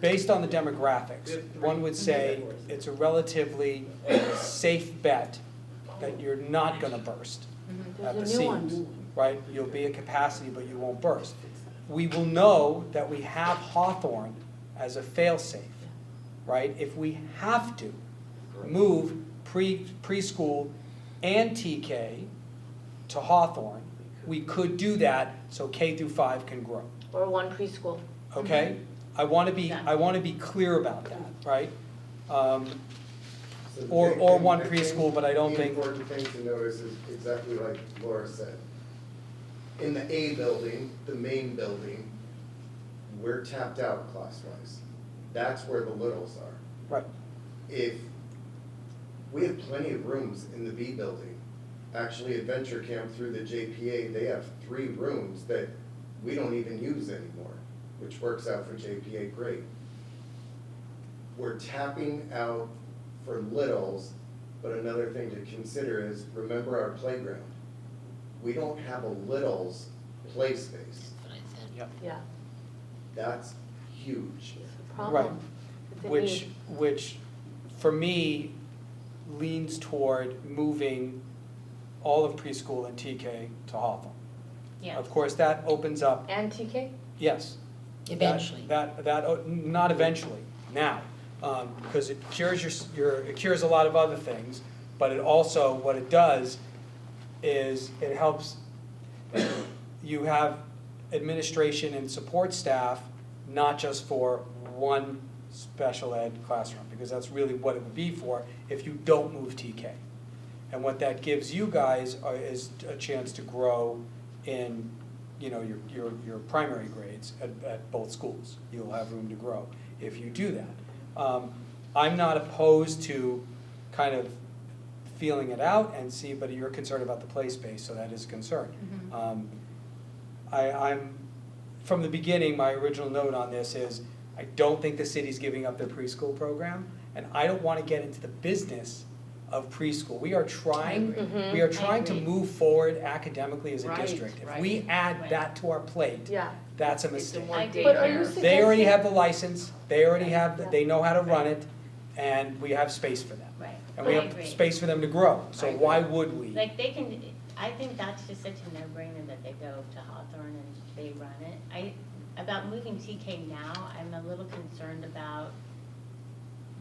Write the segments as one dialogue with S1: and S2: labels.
S1: based on the demographics, one would say it's a relatively safe bet that you're not gonna burst at the
S2: There's a new one.
S1: seams, right? You'll be at capacity, but you won't burst. We will know that we have Hawthorne as a fail-safe, right? If we have to move pre, preschool and TK to Hawthorne, we could do that so K through five can grow
S2: Or one preschool.
S1: okay? I wanna be,
S2: Mm-hmm. Yeah.
S1: I wanna be clear about that, right? Um, Or- or one preschool, but I don't think-
S3: The important thing to notice is exactly like Laura said. In the A building, the main building, we're tapped out class-wise. That's where the littles are.
S1: right,
S3: If, we have plenty of rooms in the B building. Actually, Adventure Camp through the JPA, they have three rooms that we don't even use anymore, which works out for JPA great we're tapping out for littles, but another thing to consider is, remember our playground. We don't have a littles play space,
S1: yep,
S2: Yeah,
S3: that's huge.
S2: it's a problem. It's a
S1: which,
S2: need.
S1: which for me leans toward moving all of preschool and TK to Hawthorne.
S4: Yeah,
S1: Of course, that opens up,
S2: And TK?
S1: yes. that-
S4: eventually.
S1: That, that, o- not eventually, now, um, cause it cures your, s- your, it cures a lot of other things, but it also, what it does is it helps, you have administration and support staff, not just for one special ed classroom, because that's really what it would be for if you don't move TK. And what that gives you guys are, is a chance to grow in, you know, your, your, your primary grades at, at both schools. You'll have room to grow if you do that. Um, I'm not opposed to kind of feeling it out and see, but you're concerned about the play space, so that is a concern. Um, I, I'm, from the beginning, my original note on this is, I don't think the city's giving up their preschool program, and I don't wanna get into the business of preschool. We are trying,
S2: Mm-hmm.
S1: we are trying to
S4: Mm-hmm. agree.
S1: move forward academically as a
S4: Right,
S1: district. If
S4: right,
S1: we add
S4: right.
S1: that to our plate,
S2: Yeah.
S1: that's a
S5: It's the
S1: mistake.
S5: one
S4: But are you
S5: daycare.
S2: saying-
S1: They already have the license, they already have, the-
S2: Yeah.
S1: they know how to run it, and we have space for them.
S4: Right,
S1: And we
S4: I
S1: have
S4: agree.
S1: space for them to grow, so
S5: I agree.
S1: why would we?
S4: Like they can, I think that's just such a no-brainer that they go to Hawthorne and they run it. I, about moving TK now, I'm a little concerned about,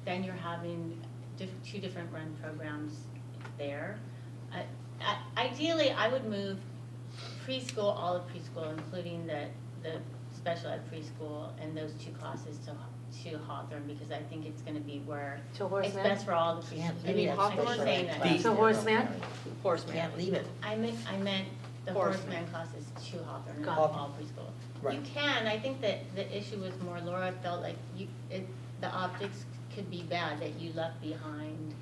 S4: then you're having diff, two different run programs there. I- I- Ideally, I would move preschool, all of preschool, including the, the special ed preschool and those two classes to, to Hawthorne, because I think it's gonna be where
S2: To
S4: It's
S2: horseman?
S4: best for all the people.
S2: You mean Hawthorne? To horseman?
S5: Horseman.
S4: Can't leave it. I meant, I meant the
S5: Horseman.
S4: horseman classes to Hawthorne,
S2: Got
S4: not
S1: it.
S4: all preschool.
S1: Right.
S4: You can, I think that the issue was more Laura felt like you, it, the optics could be bad that you left behind,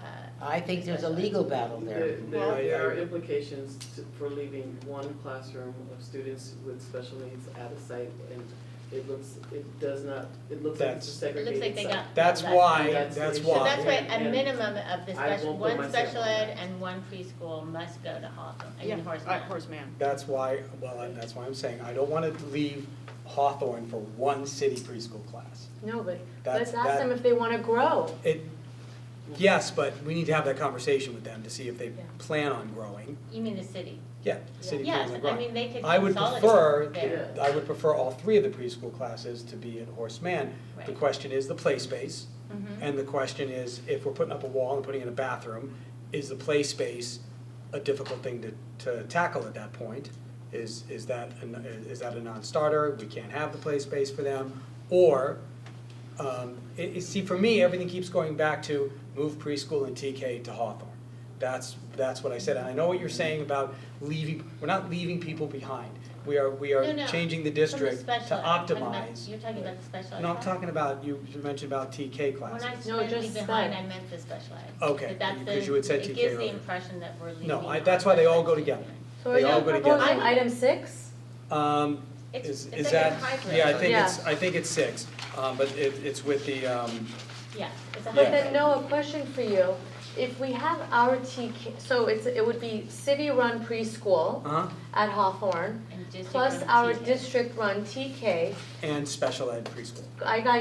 S4: uh,
S6: I think there's a legal battle there.
S5: There-
S1: Well, I-
S5: There, there
S1: I-
S5: are implications to- for leaving one classroom of students with special needs at a site, and it looks, it does not, it looks like it's a
S4: it looks like
S5: segregated
S4: they
S5: site.
S4: got.
S1: That's
S4: left.
S1: why,
S5: That's the
S1: that's
S5: issue.
S1: why.
S4: So that's why a
S5: And-
S4: minimum of the
S5: I
S4: special,
S5: won't put
S4: one
S5: myself
S4: special
S5: on
S4: ed
S5: that.
S4: and one preschool must go to Hawthorne, I
S5: Yeah,
S4: mean horseman.
S5: uh, horseman.
S1: That's why, well, and that's why I'm saying, I don't wanna leave Hawthorne for one city preschool class.
S2: No, but
S1: That's-
S2: let's ask
S1: that-
S2: them if they wanna grow.
S1: It, yes, but we need to have that conversation with them to see if they
S2: Yeah.
S1: plan on growing,
S4: You mean the city?
S1: yeah, the city
S4: Yes,
S1: plans on
S4: I
S1: growing.
S4: mean, they could
S1: I would
S4: consolidate
S1: prefer
S4: there.
S1: I would prefer all three of the preschool classes to be at Horace Mann. The
S4: Right.
S1: question is the play space,
S4: Mhm.
S1: and the question is, if we're putting up a wall and putting in a bathroom, is the play space a difficult thing to, to tackle at that point? Is, is that, a n- is that a non-starter, we can't have the play space for them? Or, um, it, it, see, for me, everything keeps going back to move preschool and TK to Hawthorne. That's, that's what I said, and I know what you're saying about leaving, we're not leaving people behind. We are, we are
S4: No, no,
S1: changing the
S4: From the
S1: district to
S4: special ed, I'm talking about-
S1: optimize.
S4: You're talking about the special ed.
S1: No, I'm
S4: class.
S1: talking about, you you mentioned about TK
S4: When I
S1: classes.
S2: No,
S4: said
S2: just
S4: leave behind,
S2: that.
S4: I meant the special ed.
S1: Okay,
S4: That that's
S1: because
S4: the-
S1: you had said TK
S4: It gives
S1: earlier.
S4: the impression that we're leaving.
S1: No, I,
S4: out
S1: that's why they all
S4: special
S1: go
S4: ed.
S1: together.
S2: So are
S1: They
S2: you
S1: all go together.
S2: proposing item six?
S1: Um,
S4: It's-
S1: is,
S4: it's
S1: is
S4: like a
S1: that,
S4: hybrid.
S1: yeah, I think it's,
S2: Yeah.
S1: I think it's six, um, but it, it's with the, um,
S4: Yeah, it's a
S2: But
S4: hybrid.
S2: then Noah, question for you. If we have our TK, so it's, it would be city-run preschool
S1: uh-huh,
S2: at Hawthorne,
S4: And district
S2: plus
S4: run
S2: our
S4: TK.
S2: district-run TK.
S1: and special ed preschool.
S2: I got